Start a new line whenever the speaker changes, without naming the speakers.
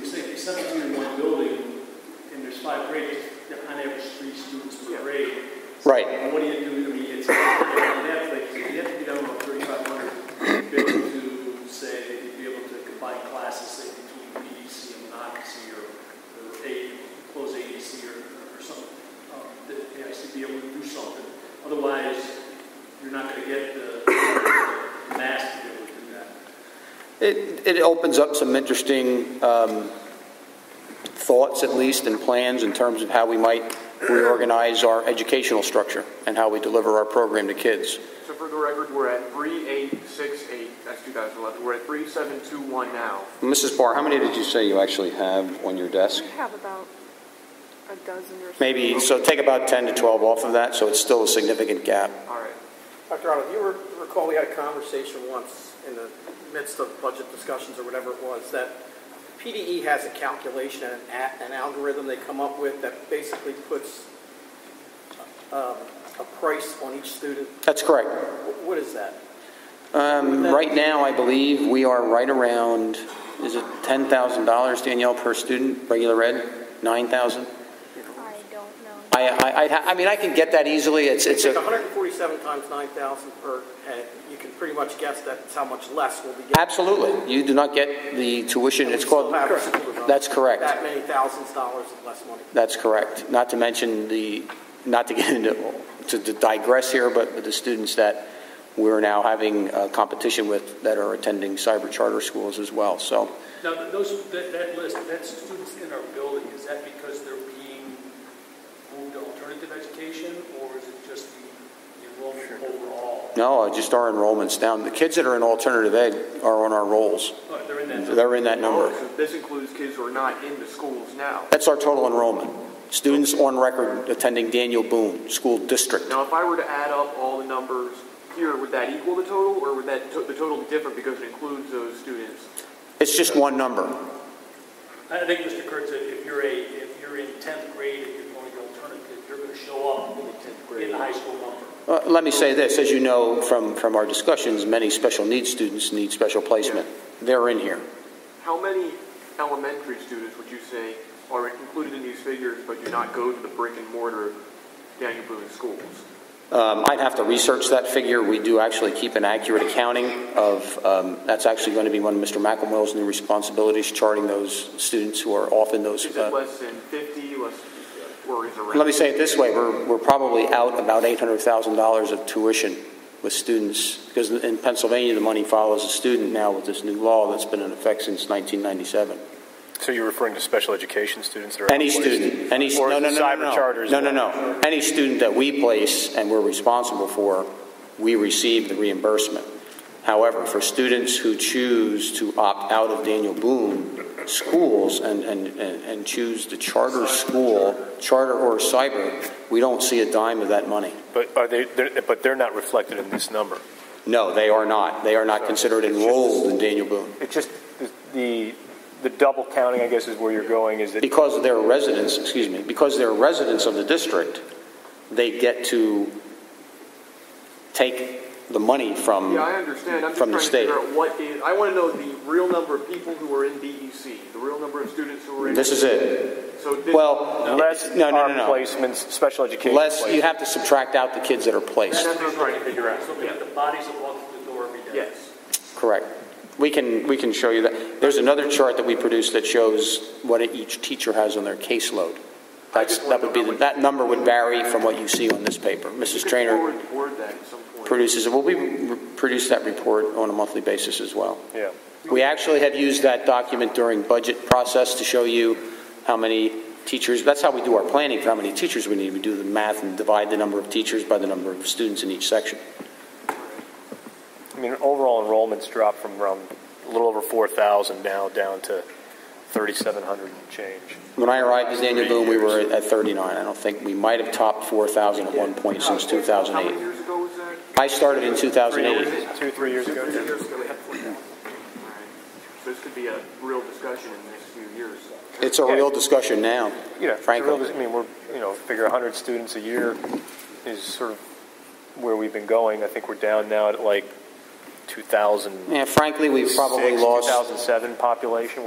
seventeen in one building, and there's five grades, they're on average three students per grade.
Right.
And What do you do, I mean, it's, you have to, like, you have to be down about thirty-five hundred, be able to say, be able to combine classes, say, between PDC and non-PC, or, or A, close ADC, or, or something. um, That, you know, to be able to do something, otherwise, you're not gonna get the the mass to be able to do that.
It, it opens up some interesting um, thoughts, at least, and plans in terms of how we might reorganize our educational structure and how we deliver our program to kids.
So for the record, we're at 3868, that's 2011, we're at 3721 now.
Mrs. Barr, how many did you say you actually have on your desk?
We have about a dozen or so.
Maybe, so take about 10 to 12 off of that, so it's still a significant gap.
All right.
Dr. Otto, do you re- recall we had a conversation once in the midst of budget discussions or whatever it was, that PDE has a calculation and an a- an algorithm they come up with that basically puts um, a price on each student?
That's correct.
Wh- What is that?
Um, right now, I believe we are right around, is it $10,000, Danielle, per student, regular ed? 9,000?
I don't know.
I, I, I'd ha- I mean, I can get that easily. It's, it's
Take
a,
147 times 9,000 per head, you can pretty much guess that's how much less we'll be getting.
Absolutely. You do not get the tuition.
And we
It's
still
called,
have a school zone.
that's correct.
That many thousands of dollars of less money.
That's correct. Not to mention the, not to get into, to to digress here, but with the students that we're now having uh, competition with that are attending cyber charter schools as well. So
Now, th- those, that, that list, that's students in our building, is that because they're being moved to alternative education, or is it just the enrollment overall?
no, uh, just our enrollments down. The kids that are in alternative ed are on our rolls.
Oh, They're in that.
They're in that number.
Oh, So This includes kids who are not in the schools now.
That's our total enrollment. Students on record attending Daniel Boone School District.
Now, if I were to add up all the numbers here, would that equal the total, or would that, to- the total be different because it includes those students?
It's just one number.
I think, Mr. Kurtz, that if you're a, if you're in tenth grade and you're going to alternative, you're gonna show up in the high school number.
Uh, Let me say this, as you know from, from our discussions, many special needs students need special placement. They're in here.
How many elementary students would you say are included in these figures but do not go to the brick and mortar Daniel Boone schools?
Um, I'd have to research that figure. We do actually keep an accurate accounting of, um, that's actually going to be one of Mr. McElmoyle's new responsibilities, charting those students who are off in those.
Is
uh,
it less than 50, less, or is it around?
Let me say it this way, we're, we're probably out about $800,000 of tuition with students, because in Pennsylvania, the money follows the student now with this new law that's been in effect since 1997.
So you're referring to special education students that are
Any
outplaced?
student, any,
Or
no, no, no, no,
cyber
no.
charters?
No, no, no. Any student that we place and we're responsible for, we receive the reimbursement. However, for students who choose to opt out of Daniel Boone schools and, and, and and choose the charter school, charter or cyber, we don't see a dime of that money.
But are they? They're, but they're not reflected in this number.
No, they are not. They are not considered enrolled in Daniel Boone.
It's just the, the the double counting. I guess is where you're going. Is that
Because they're residents, excuse me, because they're residents of the district, they get to take the money from.
Yeah, I understand. I'm just
from
trying
the
to
state.
figure out what is, I want to know the real number of people who are in DEC, the real number of students who are in.
This is it.
So this,
Well,
less
no, no,
are
no, no.
placements, special education.
Less,
placements.
you have to subtract out the kids that are placed.
that's what I'm trying to figure out.
It's looking at the bodies that walk through the door every day.
Yes.
Correct. We can, we can show you that. There's another chart that we produced that shows what each teacher has on their caseload. That's,
just
that
wanna
would be,
know
the-
what-
that number would vary from what you see on this paper.
You
Mrs.
could
Trainer
Forward the board that at some point.
produces, well, we re- produce that report on a monthly basis as well.
Yeah.
We actually have used that document during budget process to show you how many teachers, that's how we do our planning for how many teachers we need. We do the math and divide the number of teachers by the number of students in each section.
I mean, overall enrollments dropped from around a little over four thousand now down to thirty-seven hundred and change.
When I arrived as Daniel Boone, we were at 39. I don't think, we might have topped 4,000 at one point since
How many
2008.
years ago was that?
I started in
Three,
2008.
two, three years ago.
Two years ago, we had 4,000. All right. So This could be a real discussion in the next few years.
It's a real discussion now,
you know,
frankly.
it's a real- I mean, we're, you know, figure 100 students a year is sort of where we've been going. I think we're down now at like 2000.
Yeah, frankly, we've probably lost
2007 population.